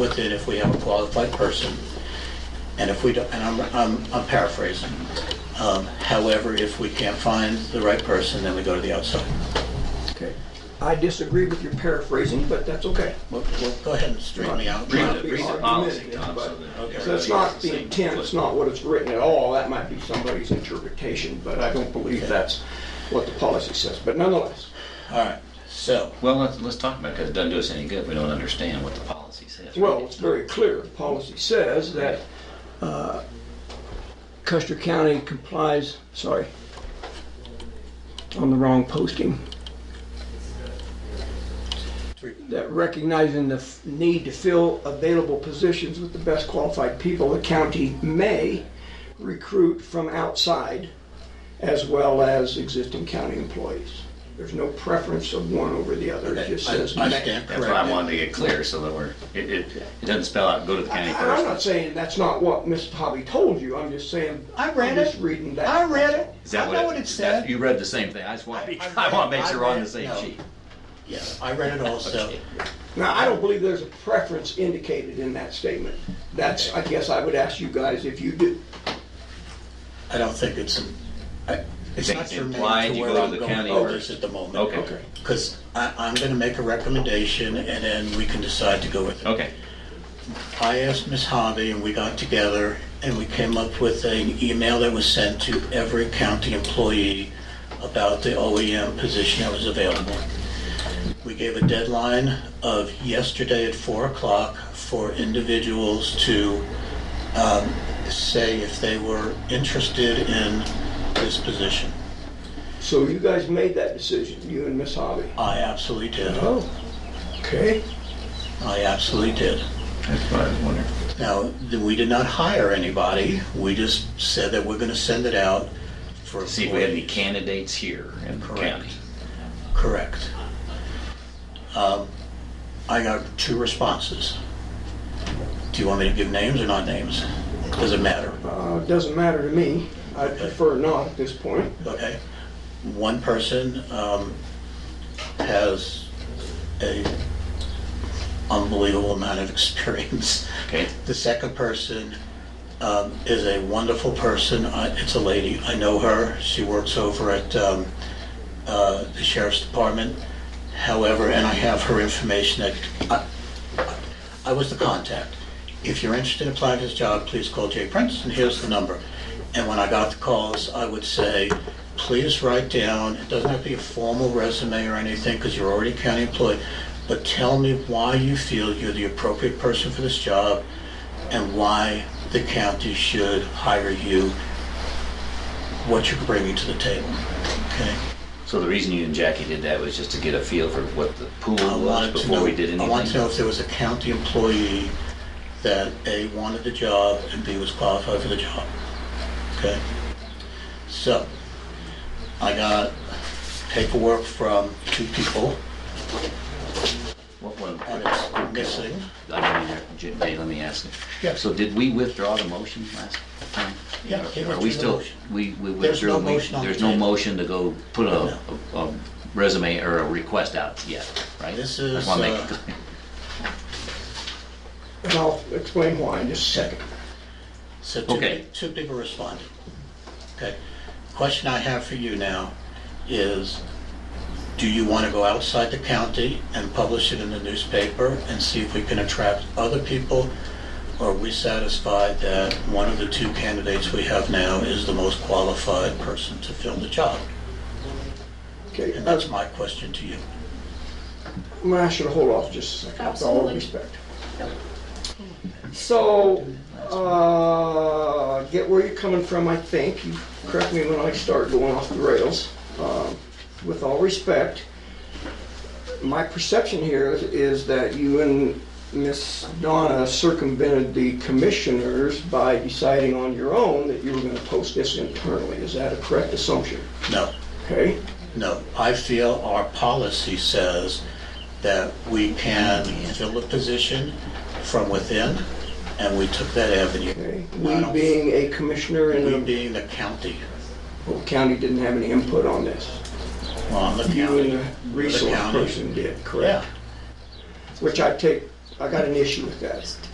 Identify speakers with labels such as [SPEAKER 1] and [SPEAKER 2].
[SPEAKER 1] with it if we have a qualified person. And if we don't, and I'm- I'm I'm paraphrasing. Um, However, if we can't find the right person, then we go to the outside.
[SPEAKER 2] Okay. I disagree with your paraphrasing, but that's okay.
[SPEAKER 1] Well, well, Go ahead and straighten me out.
[SPEAKER 2] Right.
[SPEAKER 3] Read the, read the policy, Tom, so that.
[SPEAKER 1] Okay.
[SPEAKER 2] So That's not the intent, it's not what it's written at all, that might be somebody's interpretation, but I don't believe that's what the policy says, but nonetheless.
[SPEAKER 1] All right, so,
[SPEAKER 3] Well, let's, let's talk about it, because it doesn't do us any good, if we don't understand what the policy says.
[SPEAKER 2] Well, it's very clear, the policy says that uh, Custer County complies, sorry, on the wrong posting. That recognizing the f- need to fill available positions with the best qualified people, the county may recruit from outside as well as existing county employees. There's no preference of one over the other, it
[SPEAKER 1] okay,
[SPEAKER 2] just
[SPEAKER 1] I
[SPEAKER 2] says
[SPEAKER 1] I
[SPEAKER 2] may.
[SPEAKER 1] stand
[SPEAKER 3] That's why I wanted
[SPEAKER 1] corrected.
[SPEAKER 3] to get clear, so that we're, it, it, it doesn't spell out, go to the county
[SPEAKER 2] I- I'm not
[SPEAKER 3] first.
[SPEAKER 2] saying that's not what Ms. Hobby told you, I'm just saying.
[SPEAKER 1] I read
[SPEAKER 2] I'm just
[SPEAKER 1] it.
[SPEAKER 2] reading that.
[SPEAKER 1] I read it.
[SPEAKER 3] Is
[SPEAKER 1] I
[SPEAKER 3] that
[SPEAKER 1] know what it
[SPEAKER 3] that's-
[SPEAKER 1] said.
[SPEAKER 3] You read the same thing, I just want,
[SPEAKER 1] I- I
[SPEAKER 3] I want to make
[SPEAKER 1] read-
[SPEAKER 3] sure we're on
[SPEAKER 1] I
[SPEAKER 3] the same
[SPEAKER 1] read- no.
[SPEAKER 3] sheet.
[SPEAKER 1] Yeah, I read it also.
[SPEAKER 3] Okay.
[SPEAKER 2] Now, I don't believe there's a preference indicated in that statement. That's, I guess I would ask you guys if you do.
[SPEAKER 1] I don't think it's, I- it's
[SPEAKER 3] think
[SPEAKER 1] not
[SPEAKER 3] it's
[SPEAKER 1] germane
[SPEAKER 3] implied
[SPEAKER 1] to
[SPEAKER 3] you
[SPEAKER 1] where
[SPEAKER 3] go to
[SPEAKER 1] I'm
[SPEAKER 3] the
[SPEAKER 1] going
[SPEAKER 3] county
[SPEAKER 1] with this
[SPEAKER 3] first?
[SPEAKER 1] at the moment.
[SPEAKER 3] Okay,
[SPEAKER 1] Because I, I'm gonna make a recommendation and then we can decide to go with it.
[SPEAKER 3] okay,
[SPEAKER 1] I asked Ms. Hobby and we got together and we came up with an email that was sent to every county employee about the OEM position that was available. We gave a deadline of yesterday at four o'clock for individuals to um, say if they were interested in this position.
[SPEAKER 2] So you guys made that decision, you and Ms. Hobby.
[SPEAKER 1] I absolutely did.
[SPEAKER 2] Oh, okay.
[SPEAKER 1] I absolutely did.
[SPEAKER 3] that's what I was wondering.
[SPEAKER 1] Now, th- we did not hire anybody. We just said that we're going to send it out for.
[SPEAKER 3] See if we had any
[SPEAKER 1] employees.
[SPEAKER 3] candidates here in the
[SPEAKER 1] Correct.
[SPEAKER 3] county.
[SPEAKER 1] Correct. Um, I got two responses. Do you want me to give names or not names? Doesn't matter,
[SPEAKER 2] Uh, Doesn't matter to me, I prefer not at this point.
[SPEAKER 1] okay? One person um, has a unbelievable amount of experience.
[SPEAKER 3] Okay,
[SPEAKER 1] The second person um, is a wonderful person. I- It's a lady. I know her. She works over at um, uh, the sheriff's department. However, and I have her information that I- I was the contact. If you're interested in applying for this job, please call Jay Prince, and here's the number. And when I got the calls, I would say, please write down, it doesn't have to be a formal resume or anything, because you're already a county employee, but tell me why you feel you're the appropriate person for this job, and why the county should hire you, what you're bringing to the table, okay?
[SPEAKER 3] so the reason you and Jackie did that was just to get a feel for what the pool
[SPEAKER 1] I
[SPEAKER 3] was
[SPEAKER 1] wanted to
[SPEAKER 3] before
[SPEAKER 1] know,
[SPEAKER 3] we did anything?
[SPEAKER 1] I wanted to know if there was a county employee that A, wanted the job, and B, was qualified for the job. Okay? So, I got paperwork from two people,
[SPEAKER 3] What one?
[SPEAKER 1] and it's missing.
[SPEAKER 3] I mean, J- Jay, let me ask you.
[SPEAKER 1] Yeah.
[SPEAKER 3] So did we withdraw the motion last time?
[SPEAKER 1] Yeah, he
[SPEAKER 3] Are
[SPEAKER 1] withdrew
[SPEAKER 3] we
[SPEAKER 1] the
[SPEAKER 3] still,
[SPEAKER 1] motion.
[SPEAKER 3] we, we
[SPEAKER 1] There's no
[SPEAKER 3] withdrew, we-
[SPEAKER 1] motion on the
[SPEAKER 3] there's no
[SPEAKER 1] table.
[SPEAKER 3] motion to go put a, a a resume or a request out yet, right?
[SPEAKER 1] This
[SPEAKER 3] I just
[SPEAKER 1] is,
[SPEAKER 3] wanna make it
[SPEAKER 1] uh,
[SPEAKER 3] clear.
[SPEAKER 2] And I'll explain why in just a second.
[SPEAKER 1] So two,
[SPEAKER 3] Okay.
[SPEAKER 1] two people responded. Okay. Question I have for you now is, do you want to go outside the county and publish it in the newspaper and see if we can attract other people? Or are we satisfied that one of the two candidates we have now is the most qualified person to fill the job?
[SPEAKER 2] Okay, uh,
[SPEAKER 1] And
[SPEAKER 2] that's,
[SPEAKER 1] that's my question to you.
[SPEAKER 2] well, I should hold off just a second, with all
[SPEAKER 4] Absolutely.
[SPEAKER 2] due respect. So, uh, get where you're coming from, I think. You correct me when I start going off the rails. Um, With all respect, my perception here is- is that you and Miss Donna circumvented the commissioners by deciding on your own that you were gonna post this internally. Is that a correct assumption?
[SPEAKER 1] No.
[SPEAKER 2] Okay?
[SPEAKER 1] No, I feel our policy says that we can fill the position from within, and we took that avenue.
[SPEAKER 2] Okay.
[SPEAKER 1] I
[SPEAKER 2] We
[SPEAKER 1] don't-
[SPEAKER 2] being a commissioner
[SPEAKER 1] We
[SPEAKER 2] in
[SPEAKER 1] being the county,
[SPEAKER 2] the county didn't have any input on this.
[SPEAKER 1] well, I'm the
[SPEAKER 2] You
[SPEAKER 1] county.
[SPEAKER 2] and the resource
[SPEAKER 1] county.
[SPEAKER 2] person did,
[SPEAKER 1] Yeah,
[SPEAKER 2] correct? Which I take I got an issue with that.